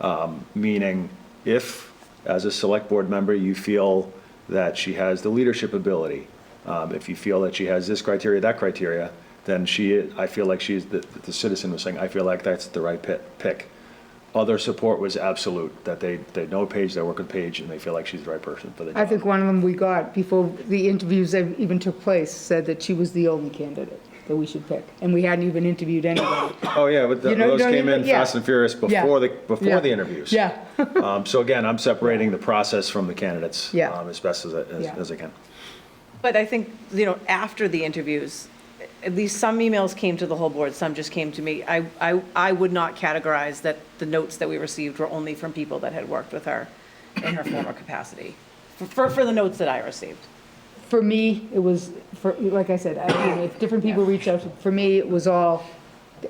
Um, Meaning, if, as a select board member, you feel that she has the leadership ability, um, if you feel that she has this criteria, that criteria, then she, I feel like she's, the the citizen was saying, I feel like that's the right pi- pick. Other support was absolute, that they, they know Paige, they work with Paige, and they feel like she's the right person for the I job. think one of them we got before the interviews ev- even took place said that she was the only candidate that we should pick, and we hadn't even interviewed anybody. Oh, yeah, but You th- know, those don't came even- in yeah. fast and furious Yeah. before the, Yeah. before the interviews. Yeah, Um, So again, I'm separating the process from the candidates Yeah. um, as best as I, as- Yeah. as I can. But I think, you know, after the interviews, at least some emails came to the whole board, some just came to me. I, I, I would not categorize that the notes that we received were only from people that had worked with her in her former capacity, for, for the notes that I received. for me, it was, for, like I said, I mean, if different people reached out, to- for me, it was all,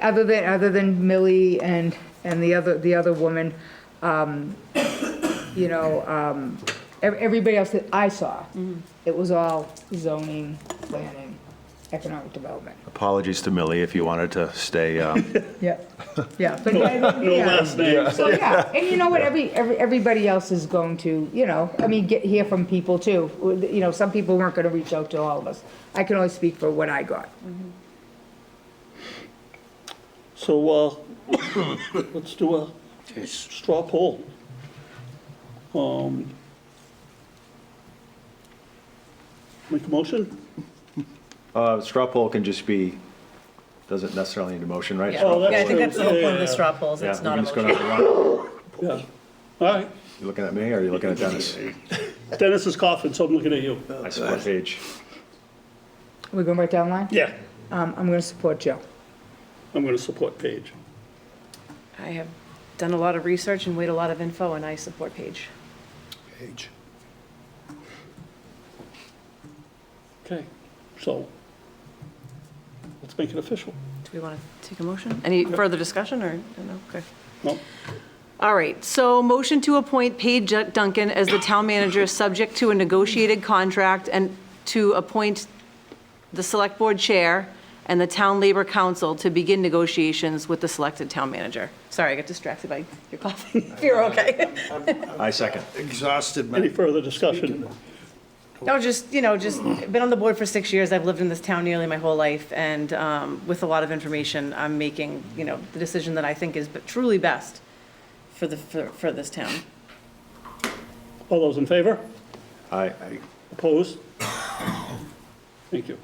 other than, other than Millie and, and the other, the other woman, um, you know, um, ev- everybody else that I saw, it was all zoning, planning, economic development. Apologies to Millie if you wanted to stay. um, Yeah, yeah, but, yeah, so, yeah, and you know what, every, every, everybody else is going to, you know, I mean, get, hear from people too. You know, some people weren't gonna reach out to all of us. I can only speak for what I got. So, uh, let's do a straw poll. Um, Make a motion? uh, Straw poll can just be, doesn't necessarily need a motion, right? Yeah, Straw Oh, that's Yeah, I poll think is- that's the whole point of the straw polls, Yeah, it's we not a can just go motion. down the line. Yeah. All right. You looking at me or are you looking at Dennis? Dennis is coughing, so I'm looking at you. I support Paige. We're going right down the line? Yeah. Um, I'm gonna support Joe. I'm going to support Paige. I have done a lot of research and weighed a lot of info, and I support Paige. Page. Okay, so let's make it official. Do we want to take a motion? Any further discussion, or, no, okay. No? All right, so motion to appoint Paige Duncan as the town manager, subject to a negotiated contract, and to appoint the select board chair and the town labor council to begin negotiations with the selected town manager. Sorry, I got distracted by your coughing. You're okay. I second. Exhausted, Any man. further discussion? No, just, you know, just, been on the board for six years, I've lived in this town nearly my whole life, and um, with a lot of information, I'm making, you know, the decision that I think is truly best for the, for for this town. All those in favor? I, Opposed? Thank you.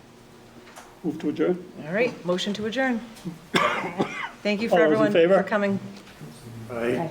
Move to adjourn? All right, motion to adjourn. Thank you for All those in everyone favor? for coming.